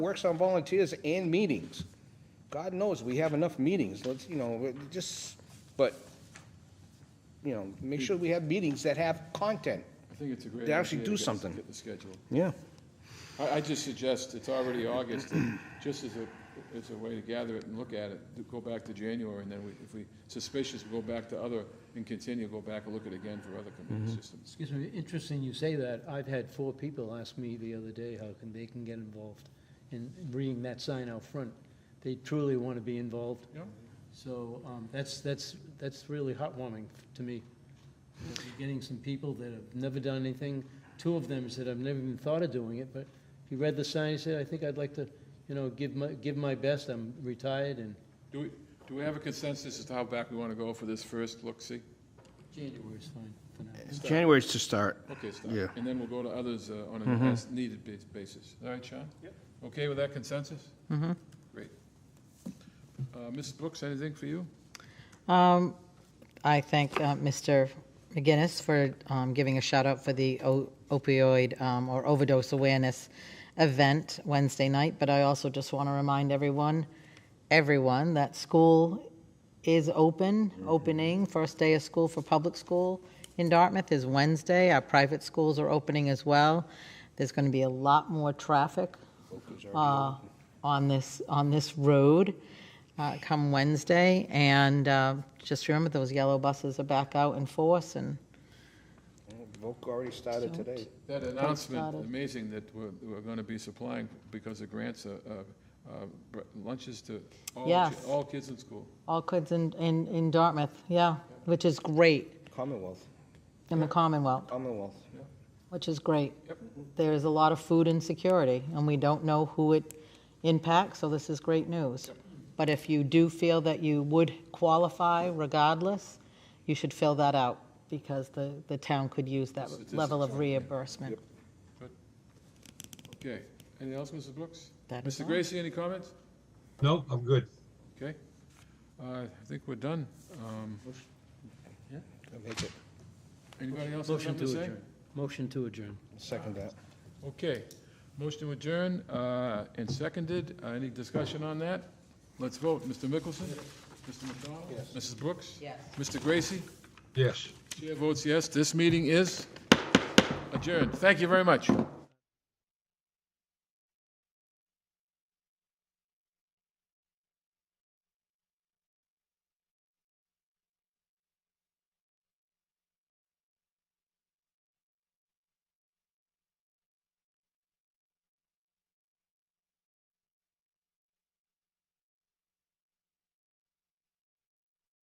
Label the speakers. Speaker 1: works on volunteers and meetings. God knows, we have enough meetings, let's, you know, it just, but, you know, make sure we have meetings that have content.
Speaker 2: I think it's a great.
Speaker 1: They actually
Speaker 2: idea
Speaker 1: do
Speaker 2: to get-
Speaker 1: something.
Speaker 2: Get the schedule.
Speaker 1: Yeah.
Speaker 2: I, I just suggest, it's already August, and just as a, as a way to gather it and look at it, to go back to January, and then we, if we suspicious, we go back to other, and continue, go back and look at it again for other
Speaker 1: Mm-hmm.
Speaker 2: computer systems.
Speaker 3: Excuse me, interesting you say that. I've had four people ask me the other day how can they can get involved in reading that sign out front. They truly want to be involved.
Speaker 2: Yep.
Speaker 3: So um, that's, that's, that's really heartwarming to me. That you're Getting some people that have never done anything. Two of them said, I've never even thought of doing it, but he read the sign, he said, I think I'd like to, you know, give my, give my best. I'm retired and
Speaker 2: Do we, do we have a consensus as to how back we want to go for this first look-see?
Speaker 3: January's fine for now.
Speaker 4: January's to start.
Speaker 2: Okay, stop.
Speaker 4: Yeah.
Speaker 2: And then we'll go to others uh, on
Speaker 1: Mm-hmm.
Speaker 2: an as-needed bas- basis. All right, Sean? Yep. Okay with that consensus? Mm-hmm. Great. Uh, Mrs. Brooks, anything for you?
Speaker 5: Um, I thank uh, Mr. McGinnis for um, giving a shout out for the o- opioid um, or overdose awareness event Wednesday night, but I also just want to remind everyone, everyone, that school is open, opening, first day of school for public school in Dartmouth is Wednesday. Our private schools are opening as well. There's going to be a lot more traffic uh, on this, on this road uh, come Wednesday. And uh, just remember, those yellow buses are back out in force, and
Speaker 1: Voc already started today.
Speaker 2: That announcement,
Speaker 5: started.
Speaker 2: amazing that we're, we're going to be supplying, because of grants, uh, uh, uh, br- lunches to all, chi-
Speaker 5: Yes.
Speaker 2: all kids in school.
Speaker 5: all kids in, in in Dartmouth, yeah, which is great,
Speaker 1: Commonwealth,
Speaker 5: in the Commonwealth,
Speaker 1: Commonwealth.
Speaker 5: which is great.
Speaker 2: Yep.
Speaker 5: There is a lot of food insecurity, and we don't know who it impacts, so this is great news. But if you do feel that you would qualify regardless, you should fill that out, because the, the town could use that level of reimbursement.
Speaker 2: Okay. Anything else, Mrs. Brooks?
Speaker 5: That is
Speaker 2: Mr.
Speaker 5: all.
Speaker 2: Gracie, any comments?
Speaker 6: No, I'm good.
Speaker 2: Okay. Uh, I think we're done. Um,
Speaker 1: I make it,
Speaker 2: Anybody else have
Speaker 3: Motion
Speaker 2: something
Speaker 3: to
Speaker 2: to say?
Speaker 3: adjourn. Motion to adjourn.
Speaker 1: second that.
Speaker 2: Okay. Motion to adjourn uh, and seconded. Uh, Any discussion on that? Let's vote. Mr. Mickelson? Mr. McDonald? Mrs. Brooks?
Speaker 5: Yes.
Speaker 2: Mr. Gracie?
Speaker 6: Yes.
Speaker 2: Chair votes yes. This meeting is adjourned. Thank you very much.